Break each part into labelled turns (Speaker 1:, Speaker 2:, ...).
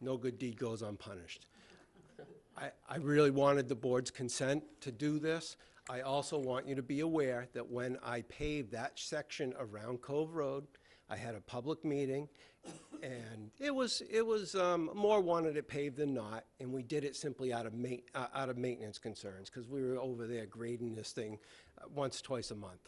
Speaker 1: no good deed goes unpunished. I, I really wanted the board's consent to do this. I also want you to be aware that when I paved that section around Cove Road, I had a public meeting, and it was, it was, um, more wanted it paved than not, and we did it simply out of ma- uh, out of maintenance concerns, because we were over there grading this thing uh, once, twice a month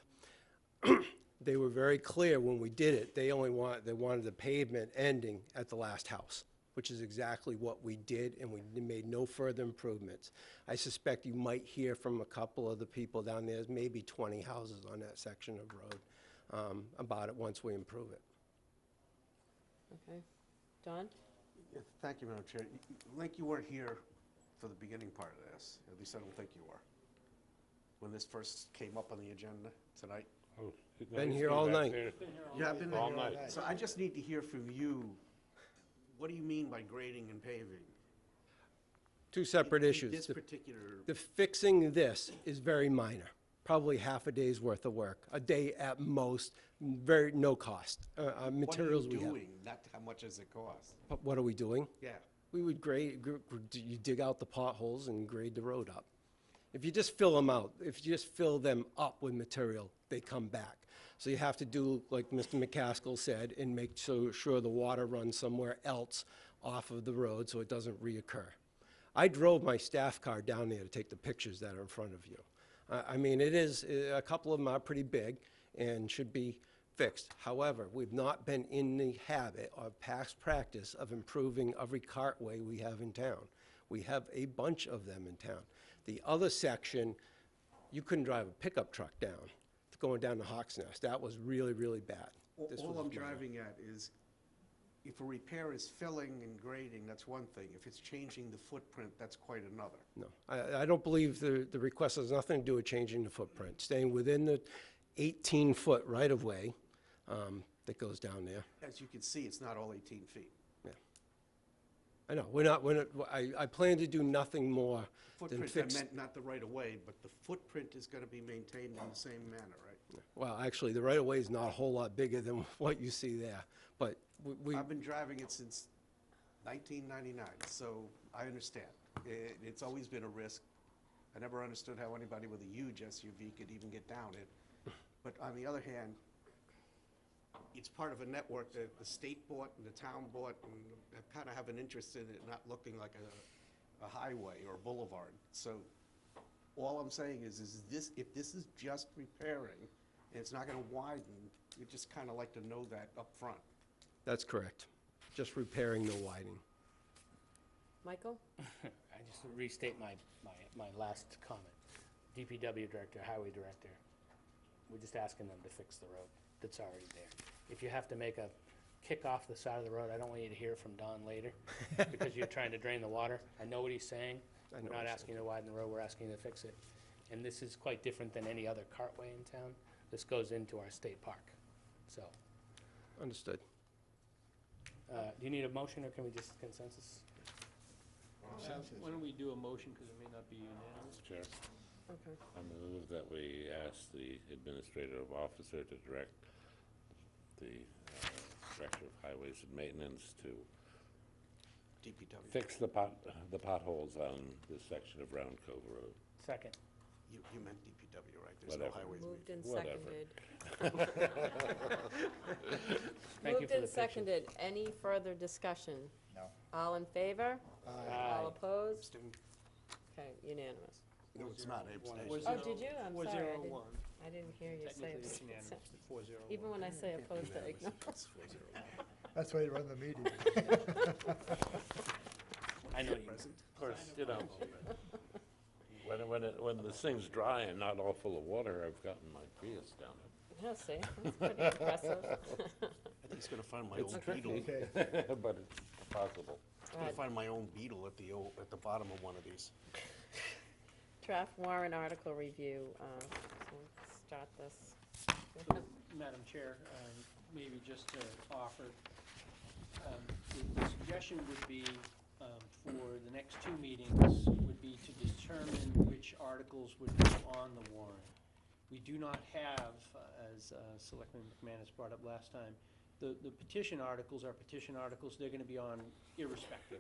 Speaker 1: they were very clear when we did it, they only want, they wanted the pavement ending at the last house, which is exactly what we did, and we made no further improvements. I suspect you might hear from a couple of the people down there, there's maybe 20 houses on that section of road, um, about it once we improve it.
Speaker 2: Okay. Don?
Speaker 3: Yeah, Thank you, Madam Chair. Y- y- Link, you weren't here for the beginning part of this. At least I don't think you were. When this first came up on the agenda tonight.
Speaker 4: Oh, it- no,
Speaker 1: Been
Speaker 4: it's
Speaker 1: here
Speaker 4: been
Speaker 1: all
Speaker 4: back
Speaker 1: night.
Speaker 4: there.
Speaker 3: You have been
Speaker 4: All night.
Speaker 3: So I just need to hear from you. What do you mean by grading and paving?
Speaker 1: Two separate
Speaker 3: In
Speaker 1: issues.
Speaker 3: This
Speaker 1: The-
Speaker 3: particular,
Speaker 1: The fixing this is very minor, probably half a day's worth of work, a day at most, very, no cost, uh, uh,
Speaker 3: what are you
Speaker 1: materials we have.
Speaker 3: doing? Not how much does it cost?
Speaker 1: But What are we doing?
Speaker 3: Yeah.
Speaker 1: We would grade, gr- gr- d- you dig out the potholes and grade the road up. If you just fill them out, if you just fill them up with material, they come back. So you have to do, like Mr. McCaskill said, and make so sure the water runs somewhere else off of the road so it doesn't reoccur. I drove my staff car down there to take the pictures that are in front of you. I, I mean, it is, uh, a couple of them are pretty big and should be fixed. However, we've not been in the habit or past practice of improving every cartway we have in town. We have a bunch of them in town. The other section, you couldn't drive a pickup truck down, going down to Hawks Nest. That was really, really bad.
Speaker 3: All-
Speaker 1: This
Speaker 3: All
Speaker 1: was
Speaker 3: I'm
Speaker 1: minor.
Speaker 3: driving at is if a repair is filling and grading, that's one thing. If it's changing the footprint, that's quite another.
Speaker 1: No, I, I don't believe the, the request has nothing to do with changing the footprint, staying within the 18-foot right-of-way um, that goes down there.
Speaker 3: As you can see, it's not all 18 feet.
Speaker 1: I know, we're not, we're not, I, I plan to do nothing more than
Speaker 3: Footprint, I
Speaker 1: fix.
Speaker 3: meant not the right of way, but the footprint is going to be maintained in the same manner, right?
Speaker 1: Well, actually, the right-of-way is not a whole lot bigger than what you see there, but we- we,
Speaker 3: I've been driving it since 1999, so I understand. It- It's always been a risk. I never understood how anybody with a huge SUV could even get down it. But on the other hand, it's part of a network that the state bought and the town bought and kind of have an interest in it not looking like a, a highway or a boulevard. So all I'm saying is, is this, if this is just repairing and it's not going to widen, you'd just kind of like to know that up front.
Speaker 1: that's correct, just repairing the widening.
Speaker 2: Michael?
Speaker 5: I just restate my, my, my last comment. DPW director, highway director, we're just asking them to fix the road that's already there. If you have to make a kick off the side of the road, I don't want you to hear from Don later because you're trying to drain the water. I know what he's saying.
Speaker 1: I know
Speaker 5: We're
Speaker 1: what
Speaker 5: not
Speaker 1: he's
Speaker 5: asking you to widen the road, we're asking you to fix it. And this is quite different than any other cartway in town. This goes into our state park. So,
Speaker 1: Understood.
Speaker 5: uh, do you need a motion or can we just consensus?
Speaker 6: Why don't we do a motion, because it may not be unanimous?
Speaker 4: Chair,
Speaker 2: Okay.
Speaker 4: I move that we ask the administrative officer to direct the uh, Director of Highways and Maintenance to
Speaker 3: DPW.
Speaker 4: fix the pot, the potholes on this section of Round Cove Road.
Speaker 5: Second.
Speaker 3: You, you meant DPW, right? There's no
Speaker 4: Whatever.
Speaker 3: highways
Speaker 2: Moved
Speaker 3: meeting.
Speaker 2: and
Speaker 4: Whatever.
Speaker 2: seconded.
Speaker 5: Thank
Speaker 2: Moved
Speaker 5: you for the
Speaker 2: and
Speaker 5: picture.
Speaker 2: seconded. Any further discussion? No. All in favor? All opposed? Okay, unanimous.
Speaker 3: No, it's not, I abstained.
Speaker 6: Was
Speaker 2: Oh,
Speaker 6: it
Speaker 2: did you? I'm
Speaker 6: Four
Speaker 2: sorry, I
Speaker 6: zero
Speaker 2: didn't-
Speaker 6: one.
Speaker 2: I didn't hear you say
Speaker 6: Technically, it's unanimous.
Speaker 2: it.
Speaker 6: Four zero one.
Speaker 2: Even when I say opposed, I ignore.
Speaker 3: It's 401.
Speaker 7: That's why you run the meeting.
Speaker 5: I know you, of course, you know.
Speaker 4: When, when, it- when this thing's dry and not all full of water, I've gotten my Prius down
Speaker 2: Yeah, see, that's pretty impressive.
Speaker 3: I think he's gonna find my old beetle. He's
Speaker 7: Okay,
Speaker 4: it, but it's possible.
Speaker 2: All
Speaker 3: gonna
Speaker 2: right,
Speaker 3: find my own beetle at the, o- at the bottom of one of these.
Speaker 2: Draft warrant article review, uh, so start this.
Speaker 6: Madam Chair, um, maybe just to offer, um, the- the suggestion would be um, for the next two meetings, would be to determine which articles would be on the warrant. We do not have, uh, as uh, Selectman McManus brought up last time, the the petition articles are petition articles, they're going to be on irrespective